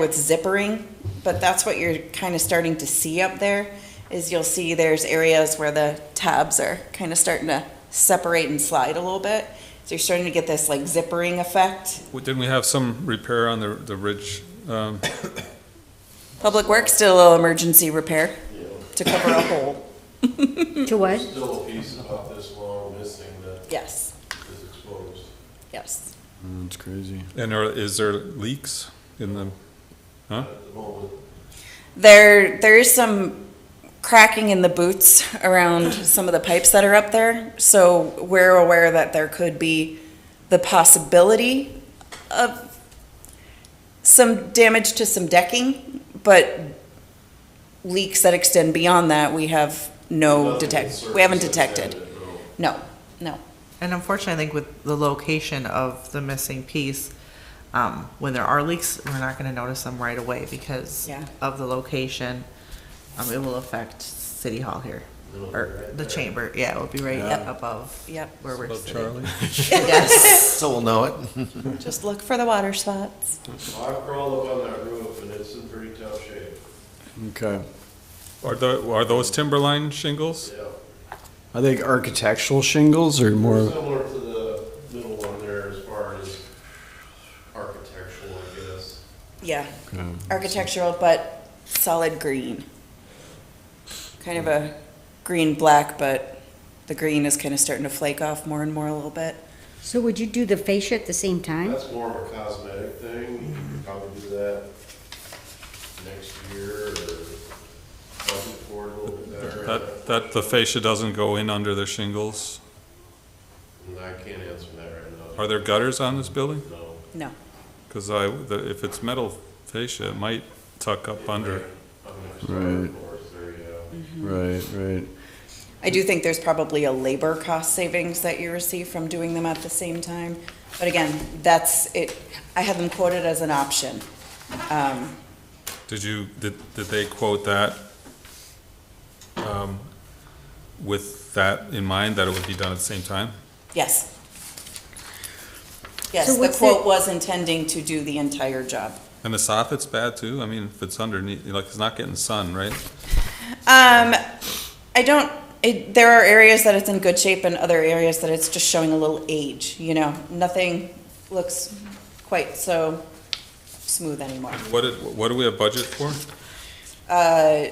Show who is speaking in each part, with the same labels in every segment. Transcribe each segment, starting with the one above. Speaker 1: with zippering, but that's what you're kind of starting to see up there, is you'll see there's areas where the tabs are kind of starting to separate and slide a little bit. So you're starting to get this like zippering effect.
Speaker 2: Well, Didn't we have some repair on the, the ridge? um,
Speaker 1: Public Works did a little emergency repair to cover a hole,
Speaker 3: To what?
Speaker 4: Still a piece about this long missing that
Speaker 1: yes,
Speaker 4: is exposed.
Speaker 1: yes.
Speaker 5: That's crazy.
Speaker 2: And are, is there leaks in the,
Speaker 4: At the moment,
Speaker 1: There, there is some cracking in the boots around some of the pipes that are up there, so we're aware that there could be the possibility of some damage to some decking, but leaks that extend beyond that, we have no
Speaker 4: nothing
Speaker 1: detect,
Speaker 4: surface
Speaker 1: we haven't
Speaker 4: that's
Speaker 1: detected.
Speaker 4: added, no.
Speaker 1: No, no.
Speaker 6: And unfortunately, I think with the location of the missing piece, um, when there are leaks, we're not gonna notice them right away because
Speaker 1: Yeah.
Speaker 6: of the location. Um, it will affect City Hall here,
Speaker 4: It'll be
Speaker 6: or
Speaker 4: right
Speaker 6: the
Speaker 4: there.
Speaker 6: chamber, yeah, it'll be right
Speaker 1: Yeah.
Speaker 6: above.
Speaker 1: Yep.
Speaker 6: Where we're
Speaker 2: about
Speaker 6: sitting.
Speaker 2: Charlie?
Speaker 6: Yes.
Speaker 5: So we'll know it.
Speaker 1: Just look for the water spots.
Speaker 4: I've crawled up on that roof and it's in pretty tough shape,
Speaker 5: Okay.
Speaker 2: Are the, are those timberline shingles?
Speaker 4: yeah.
Speaker 5: Are they architectural shingles or more?
Speaker 4: Similar to the middle one there as far as architectural, I guess.
Speaker 1: Yeah,
Speaker 5: Okay.
Speaker 1: architectural, but solid green. Kind of a green-black, but the green is kind of starting to flake off more and more a little bit.
Speaker 3: So would you do the fascia at the same time?
Speaker 4: That's more of a cosmetic thing, you could probably do that next year or budget for it a little bit better.
Speaker 2: That, that the fascia doesn't go in under the shingles?
Speaker 4: And I can't answer that right now,
Speaker 2: Are there gutters on this building?
Speaker 4: no.
Speaker 1: No.
Speaker 2: Because I, the- if it's metal fascia, it might tuck up under.
Speaker 4: I'm gonna start
Speaker 5: Right.
Speaker 4: with forest there, yeah.
Speaker 5: Right, right.
Speaker 1: I do think there's probably a labor cost savings that you receive from doing them at the same time. But again, that's it, I had them quoted as an option. Um,
Speaker 2: Did you, did, did they quote that um, with that in mind, that it would be done at the same time?
Speaker 1: yes. Yes,
Speaker 3: So
Speaker 1: the
Speaker 3: what's
Speaker 1: quote
Speaker 3: the-
Speaker 1: was intending to do the entire job.
Speaker 2: And the soffit's bad too? I mean, if it's underneath, like, it's not getting sun, right?
Speaker 1: Um, I don't, it, there are areas that it's in good shape and other areas that it's just showing a little age, you know? Nothing looks quite so smooth anymore.
Speaker 2: What, did- what do we have budget for?
Speaker 1: Uh,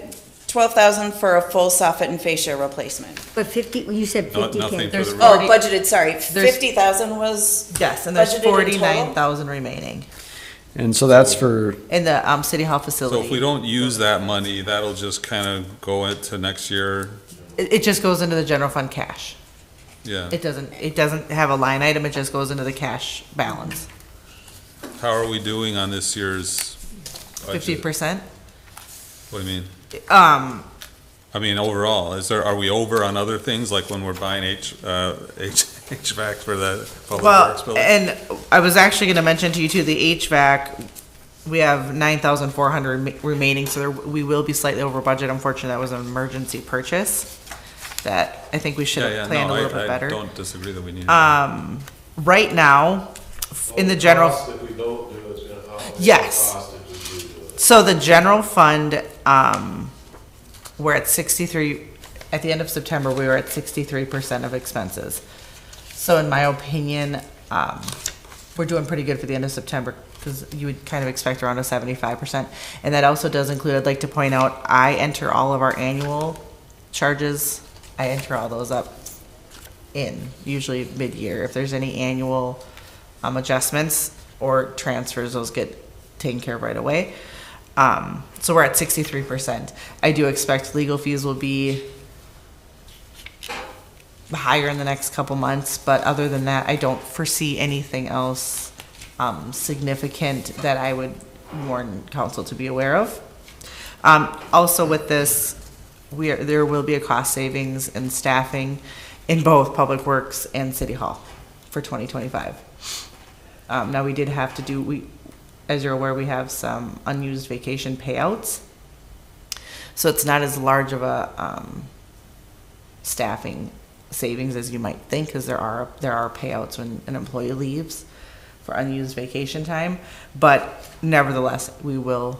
Speaker 1: twelve thousand for a full soffit and fascia replacement.
Speaker 3: But fifty, you said
Speaker 2: No-
Speaker 3: fifty
Speaker 2: Nothing
Speaker 3: K.
Speaker 2: for
Speaker 6: There's-
Speaker 2: the roof?
Speaker 1: Oh, budgeted, sorry,
Speaker 6: There's-
Speaker 1: fifty thousand was,
Speaker 6: Yes, and there's
Speaker 1: Budgeted in total?
Speaker 6: forty-nine thousand remaining
Speaker 5: And so that's for,
Speaker 6: in the, um, City Hall
Speaker 2: So if we
Speaker 6: facility.
Speaker 2: don't use that money, that'll just kind of go into next year,
Speaker 6: It, it just goes into the general fund cash.
Speaker 2: yeah.
Speaker 6: It doesn't, it doesn't have a line item, it just goes into the cash balance.
Speaker 2: How are we doing on this year's
Speaker 6: Fifty
Speaker 2: budget?
Speaker 6: percent,
Speaker 2: What do you mean?
Speaker 6: um,
Speaker 2: I mean, overall, is there, are we over on other things, like when we're buying H, uh, H, HVAC for the public works
Speaker 6: Well,
Speaker 2: building?
Speaker 6: and I was actually gonna mention to you too, the HVAC, we have nine thousand four hundred remaining, so there, we will be slightly over budget. Unfortunately, that was an emergency purchase that I think we should
Speaker 2: Yeah, yeah,
Speaker 6: have planned
Speaker 2: no,
Speaker 6: a
Speaker 2: I-
Speaker 6: little bit
Speaker 2: I
Speaker 6: better.
Speaker 2: don't disagree that we need.
Speaker 6: Um, right now, in the general.
Speaker 4: Cost If we don't do it, it's gonna outweigh the
Speaker 6: Yes.
Speaker 4: cost if we do do it.
Speaker 6: So the general fund, um, we're at sixty-three, at the end of September, we were at sixty-three percent of expenses. So in my opinion, um, we're doing pretty good for the end of September, because you would kind of expect around a seventy-five percent. And that also does include, I'd like to point out, I enter all of our annual charges, I enter all those up in, usually mid-year. If there's any annual um, adjustments or transfers, those get taken care of right away. Um, So we're at 63%. I do expect legal fees will be higher in the next couple months, but other than that, I don't foresee anything else um, significant that I would warn council to be aware of. Um, Also with this, we are, there will be a cost savings in staffing in both Public Works and City Hall for 2025. Um, Now, we did have to do, we, as you're aware, we have some unused vacation payouts. So it's not as large of a um, staffing savings as you might think, because there are, there are payouts when an employee leaves for unused vacation time. But nevertheless, we will